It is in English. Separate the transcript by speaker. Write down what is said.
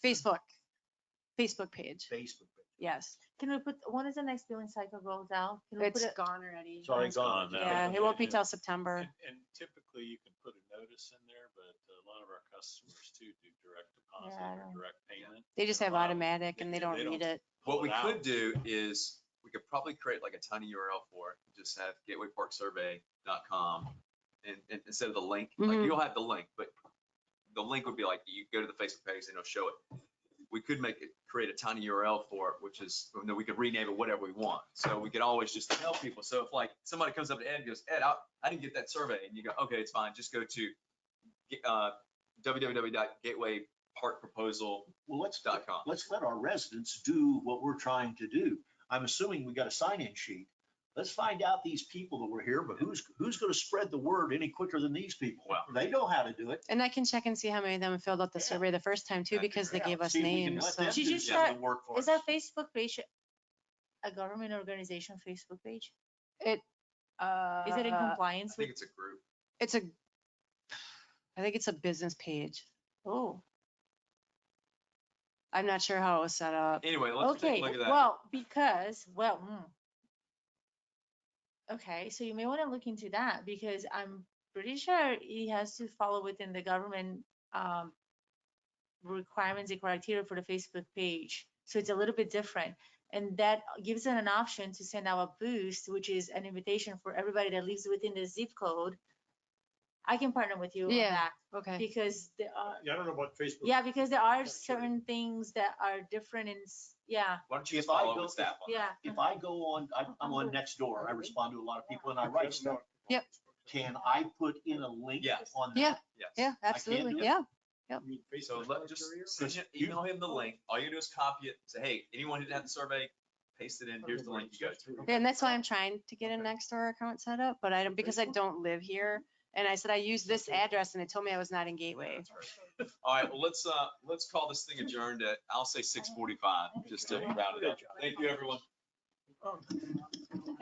Speaker 1: Facebook, Facebook page.
Speaker 2: Facebook.
Speaker 1: Yes,
Speaker 3: Can we put, when is the next billing cycle rolls out? Can we put
Speaker 1: it's
Speaker 3: it?
Speaker 1: gone already.
Speaker 2: It's already
Speaker 4: It's gone
Speaker 2: gone.
Speaker 4: now.
Speaker 1: Yeah, it won't be till September.
Speaker 4: And and typically you can put a notice in there, but a lot of our customers too do direct deposit
Speaker 3: Yeah, I
Speaker 4: or
Speaker 3: don't-
Speaker 4: direct payment.
Speaker 1: They just have
Speaker 4: Wow.
Speaker 1: automatic and they
Speaker 4: Yeah,
Speaker 1: don't
Speaker 4: they
Speaker 1: read
Speaker 4: don't-
Speaker 1: it.
Speaker 4: Pull
Speaker 5: What we
Speaker 4: it out.
Speaker 5: could do is, we could probably create like a tiny URL for it, just have gatewayparksurvey.com. And, and instead of the link, like
Speaker 1: Mhm.
Speaker 5: you'll have the link, but the link would be like, you go to the Facebook page and it'll show it. We could make it, create a tiny URL for it, which is, and then we could rename it whatever we want. So we could always just tell people. So if like somebody comes up to Ed and goes, Ed, I, I didn't get that survey. And you go, okay, it's fine. Just go to, ga- uh, www.gatewayparkproposal.com.
Speaker 2: Well, let's, let's let our residents do what we're trying to do. I'm assuming we got a sign-in sheet. Let's find out these people that were here, but who's, who's gonna spread the word any quicker than these people?
Speaker 5: Well-
Speaker 2: They know how to do it.
Speaker 1: And I can check and see how many of them filled out the
Speaker 2: Yeah.
Speaker 1: survey the first time too,
Speaker 5: That'd be
Speaker 1: because they
Speaker 2: Yeah,
Speaker 1: gave us
Speaker 2: see if we can
Speaker 1: names.
Speaker 2: let
Speaker 1: so-
Speaker 2: them
Speaker 3: She
Speaker 2: do
Speaker 3: just
Speaker 2: some of
Speaker 3: got-
Speaker 2: the work for
Speaker 3: Is
Speaker 2: us.
Speaker 3: our Facebook page a government organization Facebook page? Is it in
Speaker 1: Uh,
Speaker 5: I
Speaker 3: compliance
Speaker 5: think
Speaker 3: with,
Speaker 5: it's a group.
Speaker 1: It's a, I think it's a business page.
Speaker 3: oh,
Speaker 1: I'm not sure how it was set up.
Speaker 5: Anyway, let's take
Speaker 3: okay,
Speaker 5: a look at that.
Speaker 3: well, because, well, hmm. Okay, so you may want to look into that because I'm pretty sure it has to follow within the government um requirements and criteria for the Facebook page. So it's a little bit different. And that gives it an option to send out a boost, which is an invitation for everybody that lives within the zip code. I can partner with you on
Speaker 1: Yeah.
Speaker 3: that
Speaker 1: Okay.
Speaker 3: because there are,
Speaker 2: Yeah, I don't know about Facebook.
Speaker 3: yeah, because there
Speaker 2: Yeah,
Speaker 3: are
Speaker 2: sure.
Speaker 3: certain things that are different in, s- yeah,
Speaker 5: Why don't you just
Speaker 2: If I
Speaker 5: follow up
Speaker 2: go-
Speaker 5: with staff on that?
Speaker 3: yeah.
Speaker 2: If I go on, I'm, I'm on Nextdoor, I respond to a lot of people and I write stuff.
Speaker 1: Yep.
Speaker 2: Can I put in a link
Speaker 5: Yes.
Speaker 2: on that?
Speaker 1: Yeah.
Speaker 5: Yes.
Speaker 1: Yeah,
Speaker 2: can't
Speaker 1: absolutely.
Speaker 2: do it.
Speaker 1: Yeah.
Speaker 5: So let, just send him-
Speaker 2: You-
Speaker 5: email him the link. All you do is copy it. Say, hey, anyone who didn't have the survey, paste it in. Here's the link you go to.
Speaker 1: Yeah, And that's why I'm trying to get a
Speaker 2: Okay.
Speaker 1: Nextdoor account set up, but I don't, because I
Speaker 2: Facebook?
Speaker 1: don't live here. And I said, I use this
Speaker 2: Okay.
Speaker 1: address and it told me I was not in Gateway.
Speaker 5: That's right. All right, well, let's, uh, let's call this thing adjourned at, I'll say six forty-five, just to round it up. Thank you, everyone.
Speaker 2: Oh.